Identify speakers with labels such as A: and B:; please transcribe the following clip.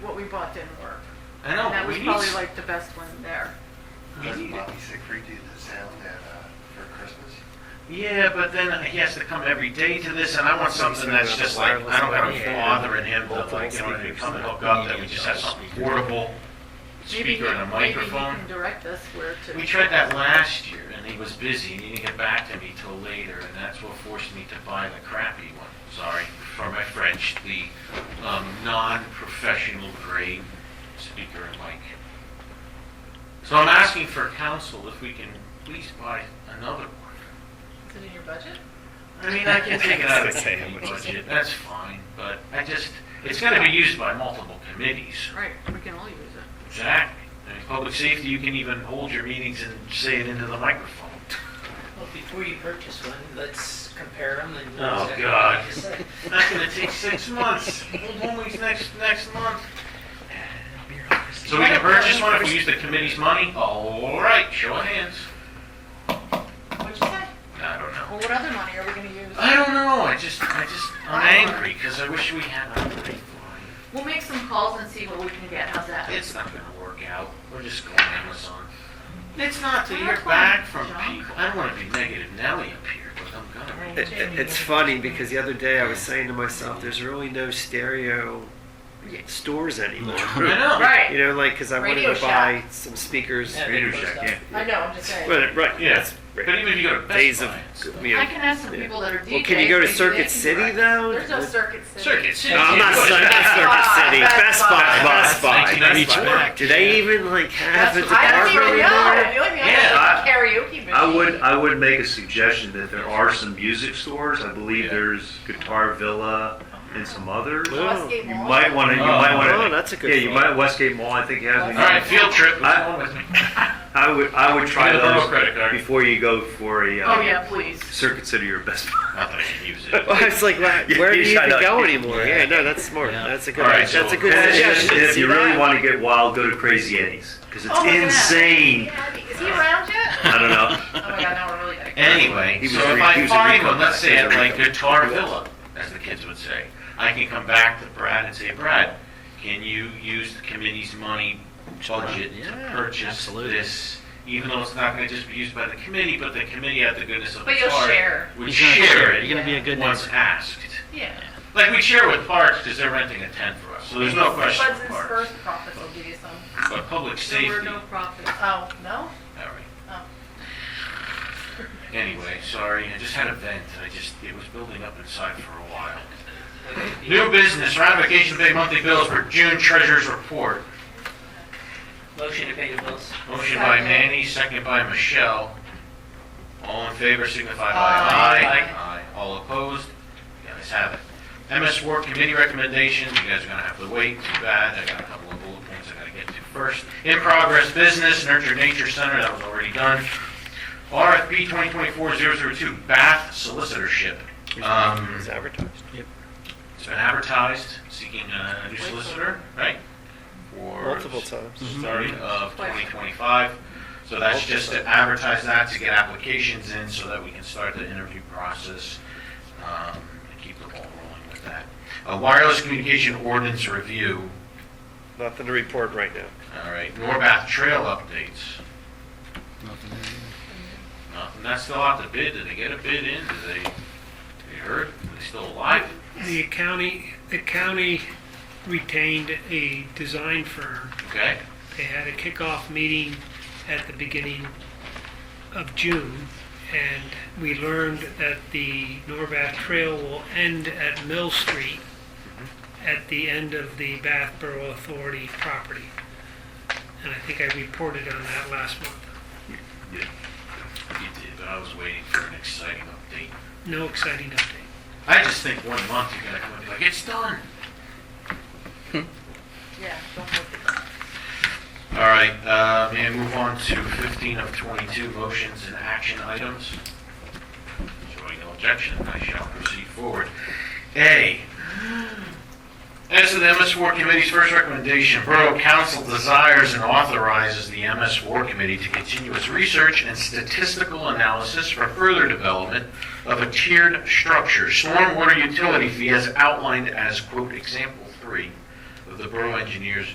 A: bought didn't work.
B: I know,
A: And that
B: but
A: was
B: we need uh,
A: probably
B: s-
A: like the best one there.
B: I
C: Doesn't
B: need it.
C: Bobby Siegfried do the sound at, uh, for Christmas?
B: Yeah, but then he has to come every day to this, and I want something that's just like, I don't have a father in him to like, you know, to come and hook up, that we just have something portable,
A: Maybe
B: speaker
A: he-
B: and a
A: Maybe
B: microphone.
A: he can direct us where to.
B: We tried that last year, and he was busy, and he didn't get back to me till later, and that's what forced me to buy the crappy one. Sorry for my French, the um, non-professional grade speaker and mic. So I'm asking for counsel if we can please buy another one.
A: Is it in your budget?
B: I mean, I can take it out of the
D: Okay.
B: committee budget, that's fine, but I just, it's gonna be used by multiple committees.
A: Right, we can all use it.
B: Exactly. I mean, public safety, you can even hold your meetings and say it into the microphone.
E: Well, before you purchase one, let's compare them and.
B: Oh, God. That's gonna take six months, Hold one week next, next month. So we can purchase one if we use the committee's money? All right, show of hands.
A: What'd you say?
B: I don't know.
A: Well, what other money are we gonna use?
B: I don't know, I just, I just, I'm angry, because I wish we had a
A: We'll make some calls and see what we can get, how's that?
B: It's not gonna work out. We're just going Amazon. It's not to hear back from people. I don't wanna be negative Nelly up here, but I'm gonna.
D: It- it- It's funny because the other day I was saying to myself, there's really no stereo stores anymore.
B: I know.
D: You know, like, because I
A: Radio
D: wanted to buy some speakers.
E: Yeah,
B: Radio
E: they closed
B: Shack,
E: down.
B: yeah.
A: I know, I'm just saying.
D: Well, right,
B: Yeah.
D: yes.
B: But even if you go to Best
D: Days of,
B: Buy and stuff.
D: you
A: I
D: know.
A: can ask some people that are DJs.
D: Well, can you go to
A: maybe they
D: Circuit
A: can
D: City
A: direct.
D: though?
A: There's no Circuit City.
B: Circuit City.
D: No, I'm not
B: Go to
D: Cir-
B: Best
D: not
B: Buy.
D: Circuit City.
A: Best
D: Best Buy,
B: Buy.
D: Best Buy. Best
B: 1992.
D: Buy. Do they even like have a
A: That's- I don't even
D: department
A: know.
D: anymore?
A: The only thing
B: Yeah,
A: I know is karaoke machine.
F: I would, I would make a suggestion that there are some music stores, I
B: Yeah.
F: believe there's Guitar Villa and some others.
D: Well,
A: Westgate
F: You
A: Oh, Mall.
F: might wanna, you
B: Oh.
F: might wanna.
D: Oh, that's a good
F: Yeah, you
D: thought.
F: might, Westgate Mall, I think has.
B: All right, field trip. What's
F: I-
B: wrong with me?
F: I would, I would try
B: Get a little
F: those
B: credit card.
F: before you go for a,
A: Oh,
F: uh,
A: yeah, please.
F: Circuit City or Best
B: Not
F: Buy.
B: that I can use it.
D: Well, it's like, where
F: Yeah,
D: where do
F: you
D: you
F: shut
D: even
F: up.
D: go anymore? Yeah, no, that's smart. That's a good,
B: All right,
D: that's a
B: so-
D: good
F: And- and-
D: suggestion.
F: and if
D: See
F: you really
D: that?
F: wanna get wild, go to Crazy Eddie's, cause
A: Oh,
F: it's
A: look at that.
F: insane.
A: Is he around yet?
F: I don't know.
A: Oh my god, now we're really gonna.
B: Anyway,
F: He was
B: so
F: a
B: if
F: re- he
B: I
F: was a
B: find
F: recon
B: one, let's
F: back.
B: say
F: He
B: at
F: was a
B: like
F: recon.
B: Guitar Villa, as the kids would say, I can come back to Brad and say, Brad, can you use the committee's money budget to
D: Yeah,
B: purchase
D: absolutely.
B: this? Even though it's not gonna just be used by the committee, but the committee out of the goodness of
A: But
B: its
A: you'll
B: heart
A: share.
B: Would
G: You're gonna
B: share
G: share.
B: it.
G: You're gonna be a good
B: Once
G: neighbor.
B: asked.
A: Yeah.
B: Like we share with parks, because they're renting a tent for us, so there's no question
A: Buds
B: with
A: and
B: parks.
A: Spurs profits will give you some.
B: But public
A: There were
B: safety,
A: no
B: all
A: profits. Oh, no?
B: right.
A: Oh.
B: Anyway, sorry, I just had a vent. I just, it was building up inside for a while. New business, ratification of paid monthly bills for June treasurer's report.
E: Motion to pay the bills.
B: Motion by Manny, second by Michelle. All in favor signify by
A: Aye.
B: aye. Aye. All opposed? The ayes have it. MS Work Committee recommendations, you guys are gonna have to wait, too bad, I got a couple of bullet points I gotta get to first. In progress business, Nurture Nature Center, that was already done. RFP 2024-002, Bath Solicitorship. Um,
D: It's advertised.
B: It's been advertised, seeking a new solicitor, right? For
D: Multiple times. Mm-hmm.
B: Start of 2025. So that's just to advertise that, to get applications in so that we can start the interview process um, and keep the ball rolling with that. A wireless communication ordinance review,
D: Nothing to report right now.
B: all right, Norbath Trail updates. Nothing, that's still out to bid, did they get a bid in, did they, they heard, are they still alive?
G: The county, the county retained a design firm.
B: Okay,
G: They had a kickoff meeting at the beginning of June, and we learned that the Norbath Trail will end at Mill Street at the end of the Bath Borough Authority property. And I think I reported on that last month.
B: you did, but I was waiting for an exciting update.
G: No exciting update.
B: I just think one month you're gonna come and be like, it's done.
A: Yeah, don't look at that.
B: All right, uh, may I move on to 15 of 22, motions and action items? Showing no objection, I shall proceed forward. A, as to the MS War Committee's first recommendation, Borough Council desires and authorizes the MS War Committee to continue its research and statistical analysis for further development of a tiered structure, stormwater utility fee as outlined as, quote, example three of the Borough Engineers